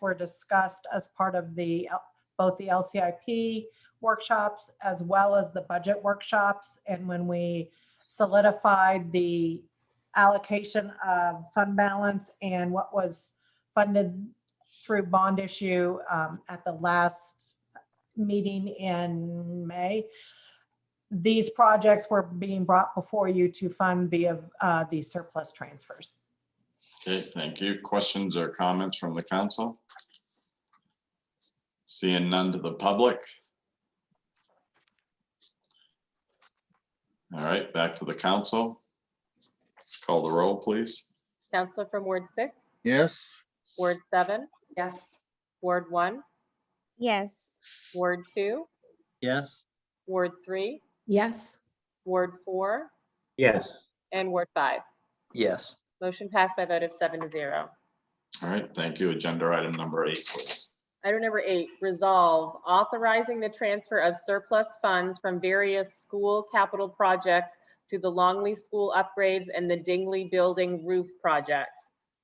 were discussed as part of the, L- both the LCIP workshops as well as the budget workshops. And when we solidified the allocation of fund balance and what was funded through bond issue um, at the last meeting in May, these projects were being brought before you to fund via uh, the surplus transfers. Okay, thank you. Questions or comments from the council? Seeing none to the public? All right, back to the council. Call the roll, please. Counselor from Ward six, yes, Ward seven, Yes. Ward one, yes, Ward two, yes, Ward three, yes, Ward four, yes, and Ward five. yes, Motion passed by a vote of seven to zero. All right, thank you. Agenda item number eight, please. Item number eight, resolve authorizing the transfer of surplus funds from various school capital projects to the Longley School upgrades and the Dingley Building roof projects.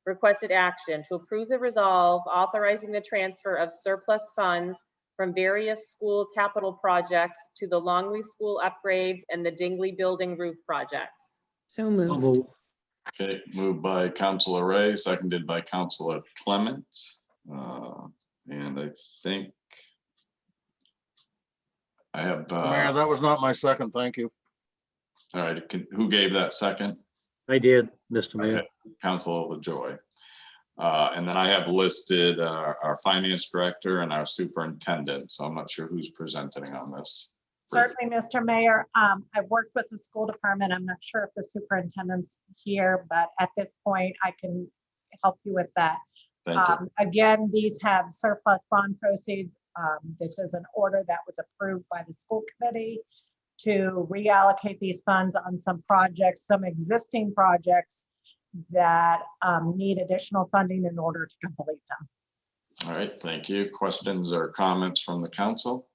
Requested action to approve the resolve authorizing the transfer of surplus funds from various school capital projects to the Longley School upgrades and the Dingley Building roof projects. so I'll moved, move, Okay, moved by Councilor Ray, seconded by Councilor Clement. Uh, And I think I have, Mayor, uh, that was not my second, thank you. all right, can- who gave that second? I did, Mr. Mayor. Okay. Council LaJoy. Uh, And then I have listed uh, our finance director and our superintendent, so I'm not sure who's presenting on this. Certainly, Mr. Mayor. Um, I've worked with the school department. I'm not sure if the superintendent's here, but at this point, I can help you with that. Thank you. Um, Again, these have surplus bond proceeds. Um, This is an order that was approved by the school committee to reallocate these funds on some projects, some existing projects that um, need additional funding in order to complete them. All right, thank you. Questions or comments from the council?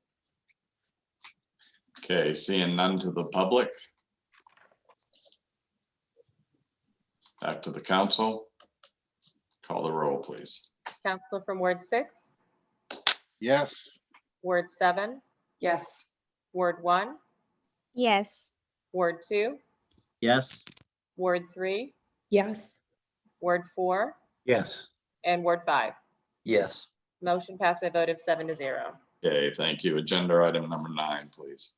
Okay, seeing none to the public. Back to the council. Call the roll, please. Counselor from Ward six, Yes, Ward seven, yes, Ward one, yes, Ward two, yes, Ward three, yes, Ward four, Yes, and Ward five. yes, Motion passed by a vote of seven to zero. Okay, thank you. Agenda item number nine, please.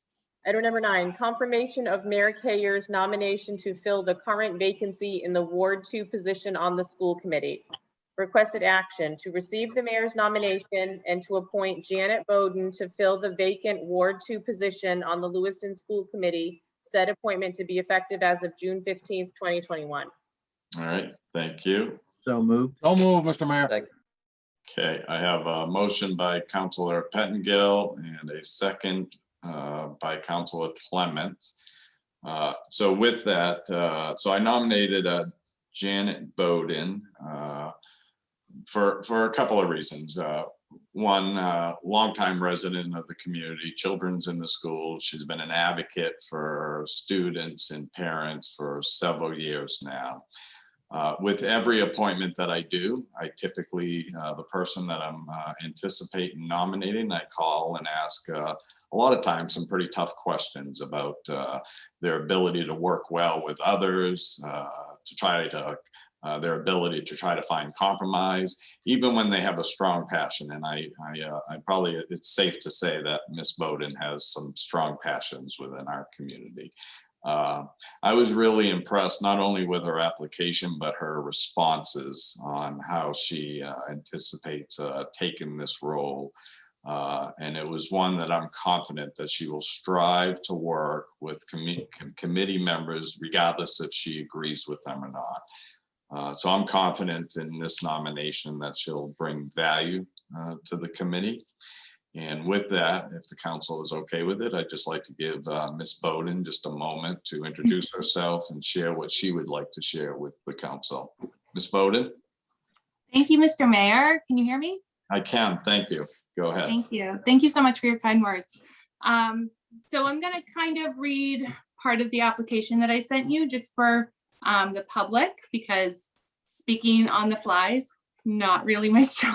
Item number nine, confirmation of Mayor Kayer's nomination to fill the current vacancy in the Ward Two position on the school committee. Requested action to receive the mayor's nomination and to appoint Janet Bowden to fill the vacant Ward Two position on the Lewiston School Committee. Said appointment to be effective as of June fifteenth, twenty twenty-one. All right, thank you. so moved, don't move, Mr. Mayor. Okay, I have a motion by Counselor Pettingill and a second uh, by Counselor Clement. Uh, So with that, uh, so I nominated uh, Janet Bowden uh, for, for a couple of reasons. Uh, One, uh, longtime resident of the community, children's in the school. She's been an advocate for students and parents for several years now. Uh, With every appointment that I do, I typically, uh, the person that I'm uh, anticipating nominating, I call and ask uh, a lot of times some pretty tough questions about uh, their ability to work well with others, uh, to try to, uh, their ability to try to find compromise, even when they have a strong passion. And I, I, uh, I probably, it's safe to say that Ms. Bowden has some strong passions within our community. Uh, I was really impressed not only with her application, but her responses on how she uh, anticipates uh, taking this role. Uh, And it was one that I'm confident that she will strive to work with commi- com- committee members regardless if she agrees with them or not. Uh, So I'm confident in this nomination that she'll bring value uh, to the committee. And with that, if the council is okay with it, I'd just like to give uh, Ms. Bowden just a moment to introduce herself and share what she would like to share with the council. Ms. Bowden, Thank you, Mr. Mayor. Can you hear me? I can, thank you. Go ahead. Thank you. Thank you so much for your kind words. Um, so I'm gonna kind of read part of the application that I sent you just for um, the public because speaking on the fly is not really my strong